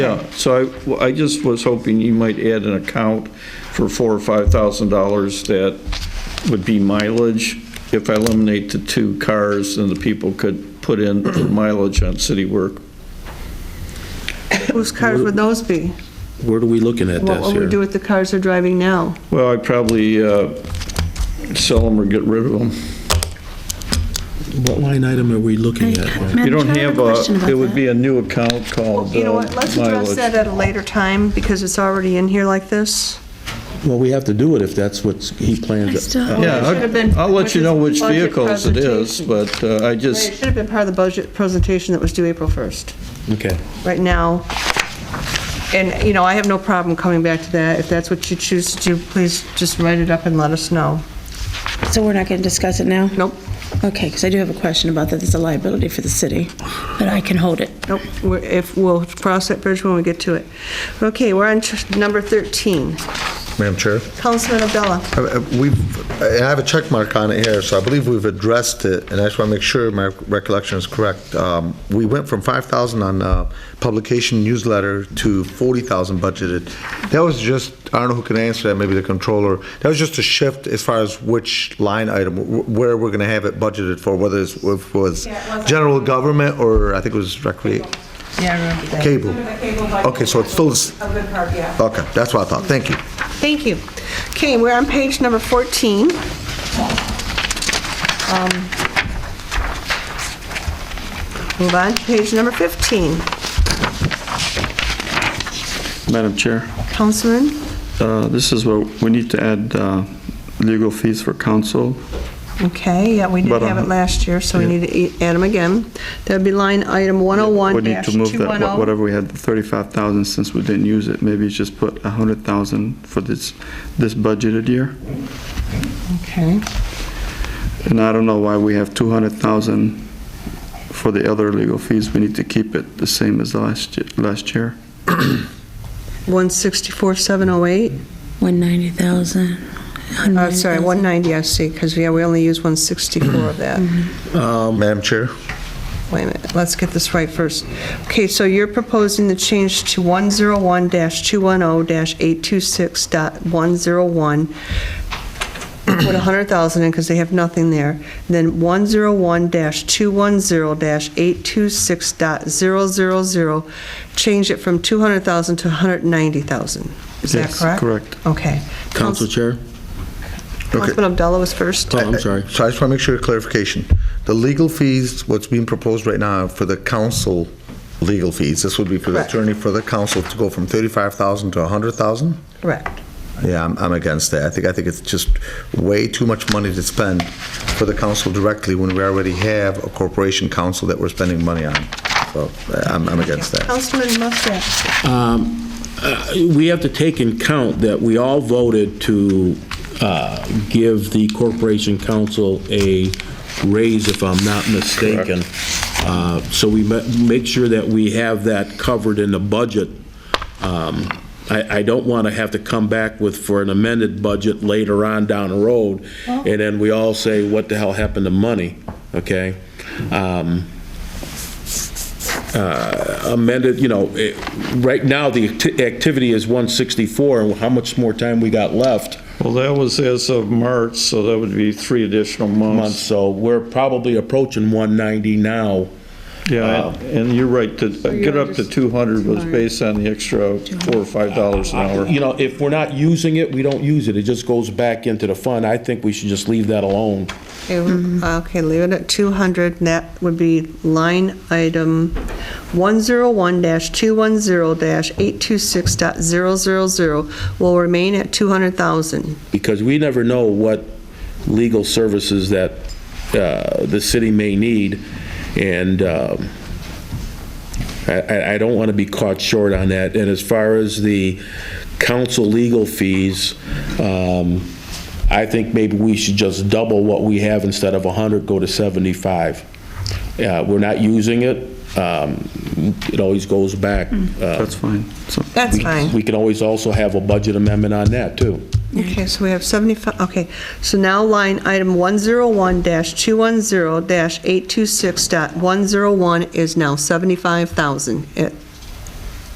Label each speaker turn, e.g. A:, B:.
A: Yeah, so I, well, I just was hoping you might add an account for four or five thousand dollars that would be mileage. If I eliminate the two cars, then the people could put in the mileage on city work.
B: Whose cars would those be?
C: Where are we looking at
B: What
C: this
B: would we do
C: here?
B: with the cars they're driving now?
A: Well, I'd probably uh, sell them or get rid of them.
C: What line item are we looking at?
A: You don't have a, it would be a new account called
B: You know
A: uh,
B: what, let's address that
A: mileage.
B: at a later time, because it's already in here like this.
C: Well, we have to do it if that's what he plans.
D: I still-
A: Yeah,
B: Well, it should have been-
A: I'll- I'll let you know which
B: Budget
A: vehicles it is,
B: presentation.
A: but uh, I
B: It
A: just,
B: should have been part of the budget presentation that was due April 1st.
C: Okay.
B: Right now, and, you know, I have no problem coming back to that. If that's what you choose to do, please just write it up and let us know.
D: So we're not going to discuss it now?
B: Nope,
D: Okay, because I do have a question about that. It's a liability for the city, but I can hold it.
B: nope, We're- if, we'll cross that bridge when we get to it. Okay, we're on tr- number 13.
E: Madam Chair?
B: Councilman Abdullah.
E: I- I- We've, I have a check mark on it here, so I believe we've addressed it, and I just want to make sure my recollection is correct. Um, We went from 5,000 on uh, publication newsletter to 40,000 budgeted. That was just, I don't know who can answer that, maybe the controller. That was just a shift as far as which line item, wh- where we're going to have it budgeted for, whether it's- if it was general government or I think it was recreate.
B: Yeah, I remember that.
E: Cable. Okay, so it's still. A good part, yeah. Okay, that's what I thought. Thank you.
B: Thank you. Okay, we're on page number 14. Um, Move on to page number 15.
F: Madam Chair,
B: Councilman,
F: uh, this is what, we need to add uh, legal fees for council.
B: okay, yeah, we did
F: But, uh,
B: have it last year, so we need to e- add them again. That'd be line item
F: We need to move that, wha-
B: 101-210.
F: whatever we had, the 35,000, since we didn't use it, maybe just put 100,000 for this, this budgeted year.
B: Okay,
F: And I don't know why we have 200,000 for the other legal fees. We need to keep it the same as last, ye- last year.
B: 164,708,
D: 190,000.
B: Uh, sorry, 190, I see, because, yeah, we only use 164 of that.
E: Madam Chair?
B: Wait a minute, let's get this right first. Okay, so you're proposing the change to 101-210-826.101. Put 100,000 in because they have nothing there. Then 101-210-826.000, change it from 200,000 to 190,000. Is that
F: Yes,
B: correct?
F: correct.
B: Okay.
C: Council Chair?
B: Councilman Abdullah was first.
C: Oh, I'm sorry.
E: Uh, So I just want to make sure clarification. The legal fees, what's being proposed right now for the council legal fees, this would be for the
B: Correct.
E: attorney for the council to go from 35,000 to 100,000?
B: Correct.
E: Yeah, I'm, I'm against that. I think, I think it's just way too much money to spend for the council directly when we already have a corporation council that we're spending money on. So uh, I'm, I'm against that.
B: Councilman Muscat.
C: uh, We have to take in count that we all voted to uh, give the Corporation Council a raise, if I'm not mistaken. Uh, So we ma- make sure that we have that covered in the budget. Um, I I don't want to have to come back with, for an amended budget later on down the road, and then we all say, what the hell happened to money, okay? Um, amended, you know, it- right now, the acti- activity is 164, and how much more time we got left?
A: well, that was as of March, so that would be three additional
C: Month,
A: months.
C: so we're probably approaching 190 now.
A: Yeah, and- and you're right, to get up to 200 was based on the extra 4 or 5 dollars an hour.
C: You know, if we're not using it, we don't use it, it just goes back into the fund. I think we should just leave that alone.
B: uh, Okay, leave it at 200, and that would be line item 101-210-826.000 will remain at 200,000.
C: because we never know what legal services that uh, the city may need, and um, I- I I don't want to be caught short on that. And as far as the council legal fees, um, I think maybe we should just double what we have instead of 100, go to 75. Uh, We're not using it, um, it always goes back. Uh,
F: That's fine. So
B: That's fine.
C: We can always also have a budget amendment on that, too.
B: Okay, so we have 75, okay. So now line item 101-210-826.101 is now 75,000 at